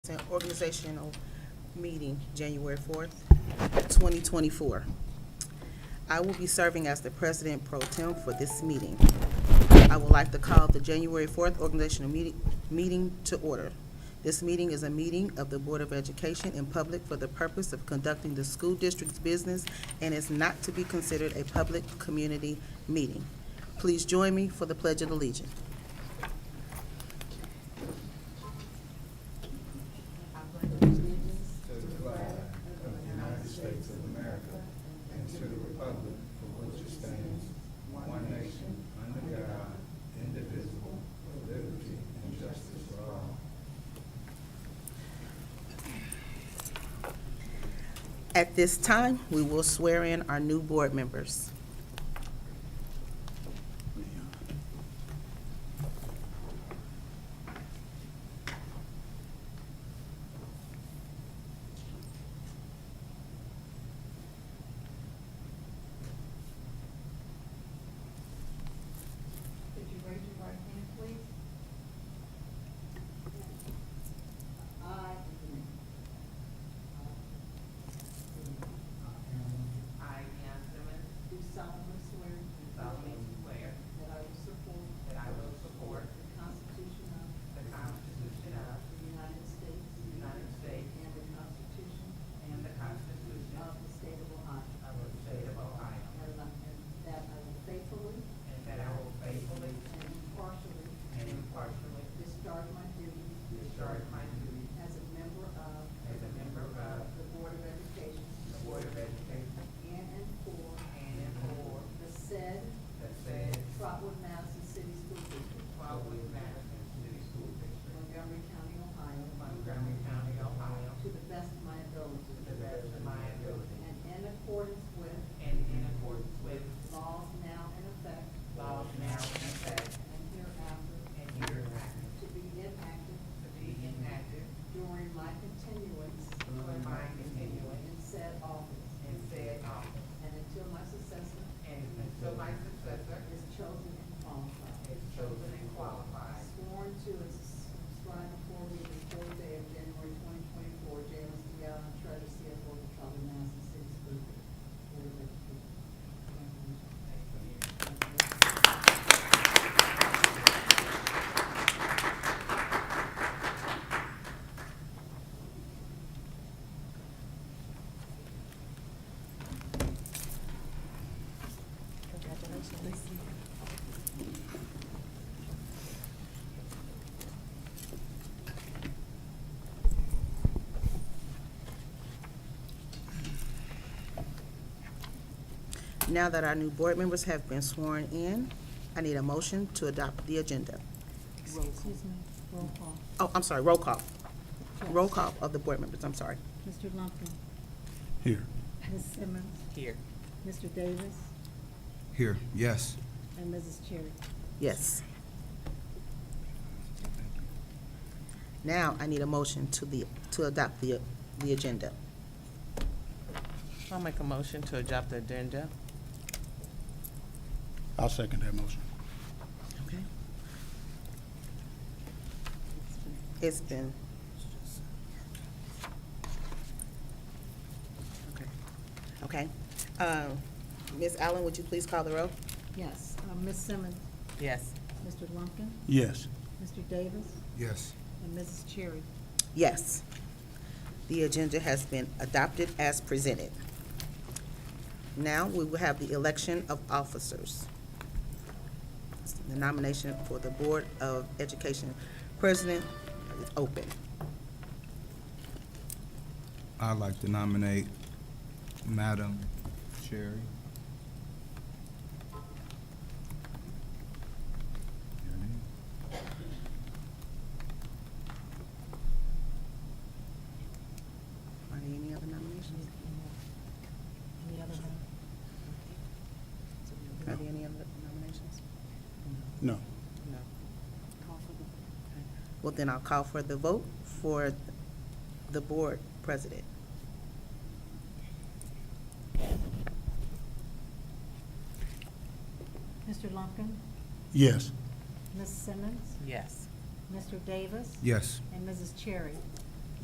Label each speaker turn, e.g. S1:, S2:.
S1: An organizational meeting, January fourth, twenty twenty-four. I will be serving as the president pro tem for this meeting. I would like to call the January fourth organizational meeting, meeting to order. This meeting is a meeting of the Board of Education in public for the purpose of conducting the school district's business and is not to be considered a public community meeting. Please join me for the pledge of allegiance. At this time, we will swear in our new board members.
S2: Could you raise your right hand, please? I.
S3: I, Deanna Simmons,
S2: Do solemnly swear.
S3: do solemnly swear
S2: That I will support.
S3: that I will support
S2: The Constitution of.
S3: the Constitution of
S2: The United States.
S3: the United States
S2: And the Constitution.
S3: and the Constitution
S2: Of
S3: of
S2: the State of Ohio.
S3: the State of Ohio,
S2: And that- and that I will faithfully
S3: and that
S2: and
S3: I will faithfully
S2: impartially.
S3: and impartially
S2: Discharge my duties.
S3: discharge my duties
S2: As a member of.
S3: as a member of
S2: The Board of Education.
S3: the Board of Education
S2: In and for.
S3: and in for
S2: The said
S3: the said
S2: Trotwood Madison City School District,
S3: Wildwood Madison City School District,
S2: Montgomery County, Ohio.
S3: Montgomery County, Ohio,
S2: To the best of my ability.
S3: to the best of my ability,
S2: And in accordance with
S3: and in accordance with
S2: laws now in effect
S3: laws now in effect
S2: and hereafter
S3: and hereafter
S2: to be enacted
S3: to be enacted
S2: during my continuance
S3: during my continuance
S2: in said office
S3: And said office.
S2: and until my successor
S3: And until my successor
S2: is chosen and qualified.
S3: is chosen and qualified.
S2: Sworn to and subscribed before me this fourth day of January twenty twenty-four, James D. Allen, Treasurer, CFO of the Trumbull Madison City School Board of Education.
S1: Now that our new board members have been sworn in, I need a motion to adopt the agenda.
S4: Excuse me, roll call.
S1: Oh, I'm sorry, roll call. Roll call of the board members, I'm sorry.
S4: Mr. Lumpkin,
S5: Here.
S4: Ms. Simmons,
S3: Here.
S4: Mr. Davis,
S5: Here, yes.
S4: and Mrs. Cherry.
S1: Yes. Now I need a motion to the, to adopt the, the agenda.
S6: I'll make a motion to adopt the agenda.
S5: I'll second that motion.
S1: Okay. It's been. Okay. Okay. Um, Ms. Allen, would you please call the roll?
S4: Yes, uh, Ms. Simmons,
S6: Yes.
S4: Mr. Lumpkin,
S5: Yes.
S4: Mr. Davis,
S5: Yes.
S4: and Mrs. Cherry.
S1: Yes. The agenda has been adopted as presented. Now, we will have the election of officers. The nomination for the Board of Education President is open.
S5: I'd like to nominate Madam Cherry. Your name?
S1: Are there any other nominations?
S4: Any other?
S1: Are there any other nominations?
S5: No.
S1: No. Well, then I'll call for the vote for the Board President.
S4: Mr. Lumpkin,
S5: Yes.
S4: Ms. Simmons,
S6: Yes.
S4: Mr. Davis,
S5: Yes.
S4: and Mrs. Cherry.